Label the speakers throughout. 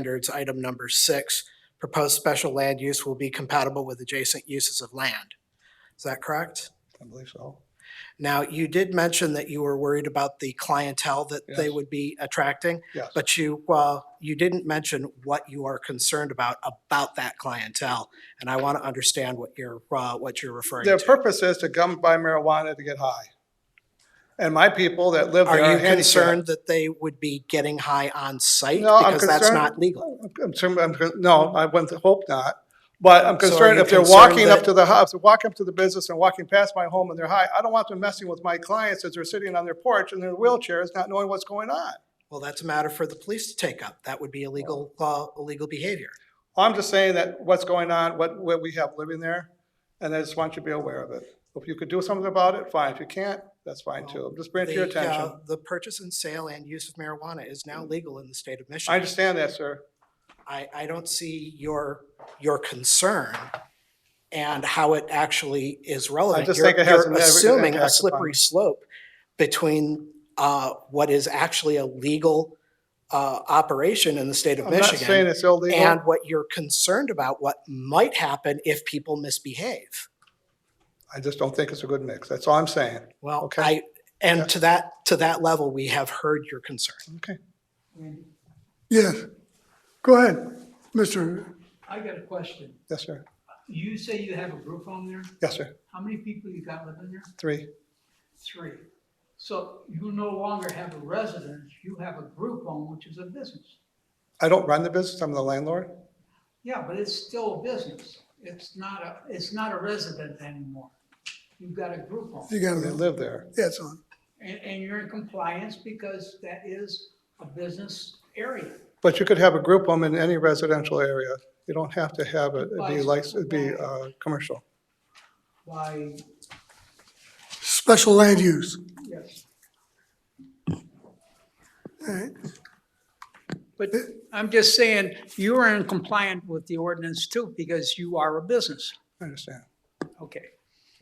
Speaker 1: standards, item number six, proposed special land use will be compatible with adjacent uses of land. Is that correct?
Speaker 2: I believe so.
Speaker 1: Now, you did mention that you were worried about the clientele that they
Speaker 2: Yes.
Speaker 1: would be attracting,
Speaker 2: Yes.
Speaker 1: but you, well, you didn't mention what you are concerned about, about that clientele. And I want to understand what you're, uh, what you're referring
Speaker 2: Their
Speaker 1: to.
Speaker 2: purpose is to come buy marijuana to get high. And my people that live
Speaker 1: Are
Speaker 2: there are
Speaker 1: you
Speaker 2: handicapped.
Speaker 1: concerned that they would be getting high on site?
Speaker 2: No, I'm
Speaker 1: Because that's
Speaker 2: concerned-
Speaker 1: not legal.
Speaker 2: I'm concerned- I'm con- No, I wouldn't hope not. But I'm
Speaker 1: So are
Speaker 2: concerned
Speaker 1: you
Speaker 2: if they're
Speaker 1: concerned
Speaker 2: walking up
Speaker 1: that-
Speaker 2: to the house, walking up to the business and walking past my home and they're high. I don't want them messing with my clients as they're sitting on their porch in their wheelchairs, not knowing what's going on.
Speaker 1: Well, that's a matter for the police to take up. That would be illegal, uh, illegal behavior.
Speaker 2: I'm just saying that what's going on, what, what we have living there, and I just want you to be aware of it. If you could do something about it, fine. If you can't, that's fine too. I'm just bringing it to your
Speaker 1: The, uh,
Speaker 2: attention. Mm.
Speaker 1: The purchase and sale and use of marijuana is now legal in the state of
Speaker 2: I
Speaker 1: Michigan.
Speaker 2: understand that, sir.
Speaker 1: I, I don't see your, your concern and how it actually is relevant.
Speaker 2: just
Speaker 1: You're-
Speaker 2: think it has
Speaker 1: you're
Speaker 2: a negative
Speaker 1: Assuming a
Speaker 2: impact upon-
Speaker 1: slippery slope between uh, what is actually a legal uh, operation in the state of
Speaker 2: I'm not saying
Speaker 1: Michigan
Speaker 2: it's illegal.
Speaker 1: and what you're concerned about, what might happen if people misbehave.
Speaker 2: I just don't think it's a good mix. That's all I'm saying.
Speaker 1: Well,
Speaker 2: Okay.
Speaker 1: I, and
Speaker 2: Yeah.
Speaker 1: to that, to that level, we have heard your concern.
Speaker 2: Okay.
Speaker 3: Yes. Go ahead, Mr.
Speaker 4: I got a question.
Speaker 2: Yes, sir.
Speaker 4: You say you have a group home there?
Speaker 2: Yes, sir.
Speaker 4: How many people you got living there?
Speaker 2: Three.
Speaker 4: Three. So you no longer have a residence, you have a group home, which is a business.
Speaker 2: I don't run the business. I'm the landlord.
Speaker 4: Yeah, but it's still a business. It's not a, it's not a resident anymore. You've got a group home.
Speaker 3: You got
Speaker 2: They
Speaker 3: it.
Speaker 2: live there.
Speaker 3: Yeah, it's on.
Speaker 4: And, and you're in compliance because that is a business area.
Speaker 2: But you could have a group home in any residential area. You don't have to have it, it'd be
Speaker 4: Right.
Speaker 2: like, it'd be, uh, commercial.
Speaker 4: By,
Speaker 3: Special land use.
Speaker 4: yes.
Speaker 3: All right.
Speaker 4: But I'm just saying, you are in compliance with the ordinance too, because you are a business.
Speaker 2: I understand.
Speaker 4: Okay,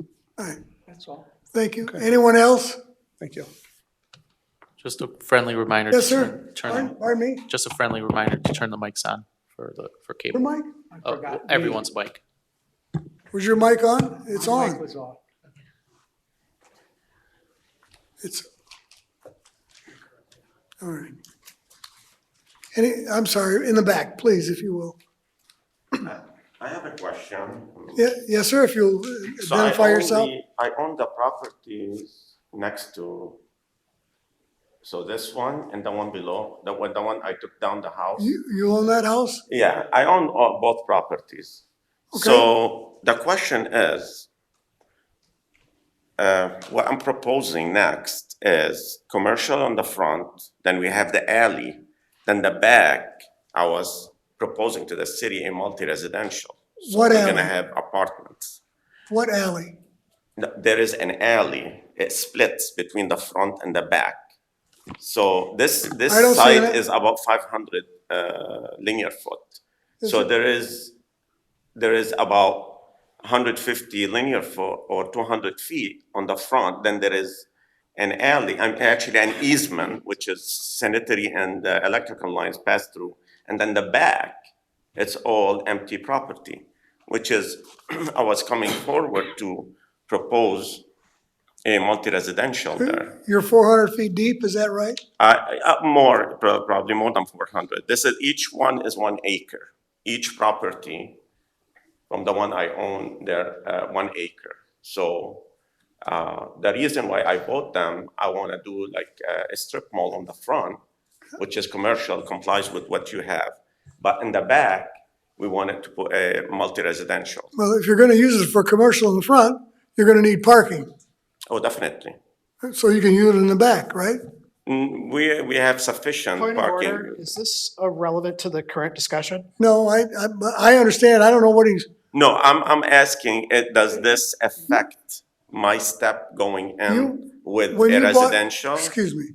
Speaker 3: All right.
Speaker 4: that's all.
Speaker 3: Thank you. Anyone else?
Speaker 2: Thank you.
Speaker 5: Just a friendly reminder.
Speaker 3: Yes,
Speaker 5: to
Speaker 3: sir.
Speaker 5: turn-
Speaker 3: Pardon
Speaker 5: Turn,
Speaker 3: pardon me?
Speaker 5: just a friendly reminder to turn the mics on for the, for
Speaker 3: Your
Speaker 5: cable.
Speaker 3: mic?
Speaker 4: I
Speaker 5: Oh,
Speaker 4: forgot.
Speaker 5: Everyone's mic.
Speaker 3: Was your mic on? It's
Speaker 4: My mic
Speaker 3: on.
Speaker 4: was off.
Speaker 3: It's. All right. Any, I'm sorry, in the back, please, if you will.
Speaker 6: I have a question.
Speaker 3: Yeah, yes, sir, if you'll uh,
Speaker 6: So I
Speaker 3: identify
Speaker 6: own
Speaker 3: yourself.
Speaker 6: the- I own the properties next to, so this one and the one below, the one, the one I took down the house.
Speaker 3: You, you own that house?
Speaker 6: Yeah, I own all- both properties. So the question is, uh, what I'm proposing next is commercial on the front, then we have the alley, then the back, I was proposing to the city a multi-residential. So
Speaker 3: What
Speaker 6: We're gonna
Speaker 3: alley?
Speaker 6: have apartments.
Speaker 3: What alley?
Speaker 6: No, There is an alley, it splits between the front and the back. So this, this
Speaker 3: I don't see
Speaker 6: side
Speaker 3: that.
Speaker 6: is about five hundred uh, linear foot.
Speaker 3: Is
Speaker 6: So
Speaker 3: it-
Speaker 6: there is, there is about hundred fifty linear foot or two hundred feet on the front. Then there is an alley, I'm actually an easement, which is sanitary and uh, electrical lines pass through. And then the back, it's all empty property, which is, I was coming forward to propose a multi-residential there.
Speaker 3: You're four hundred feet deep, is that right?
Speaker 6: I- I- uh, More, pro- probably more than 400. This is, each one is one acre. Each property from the one I own, they're uh, one acre. So uh, the reason why I bought them, I want to do like uh, a strip mall on the front, which is commercial, complies with what you have. But in the back, we wanted to put a multi-residential.
Speaker 3: Well, if you're gonna use it for commercial in the front, you're gonna need parking.
Speaker 6: Oh, definitely.
Speaker 3: So you can use it in the back, right?
Speaker 6: Mm, We, we have sufficient
Speaker 1: Point of order,
Speaker 6: parking.
Speaker 1: is this uh, relevant to the current discussion?
Speaker 3: No, I, I, but I understand, I don't know what he's,
Speaker 6: No, I'm, I'm asking, it, does this affect my step going in
Speaker 3: You-
Speaker 6: with
Speaker 3: when
Speaker 6: a
Speaker 3: you bought-
Speaker 6: residential?
Speaker 3: excuse me.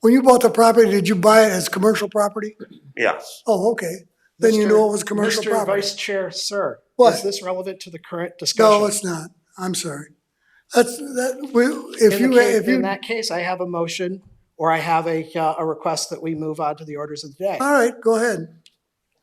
Speaker 3: When you bought the property, did you buy it as commercial property?
Speaker 6: Yes,
Speaker 3: Oh, okay, then you
Speaker 1: Mr.
Speaker 3: know it was commercial
Speaker 1: Mr.
Speaker 3: property.
Speaker 1: Vice Chair, sir, is
Speaker 3: What?
Speaker 1: this relevant to the current discussion?
Speaker 3: No, it's not, I'm sorry. That's, that, we, if
Speaker 1: In
Speaker 3: you,
Speaker 1: the case-
Speaker 3: if you,
Speaker 1: In that case, I have a motion, or I have a, uh, a request that we move on to the orders of the day.
Speaker 3: all right, go ahead.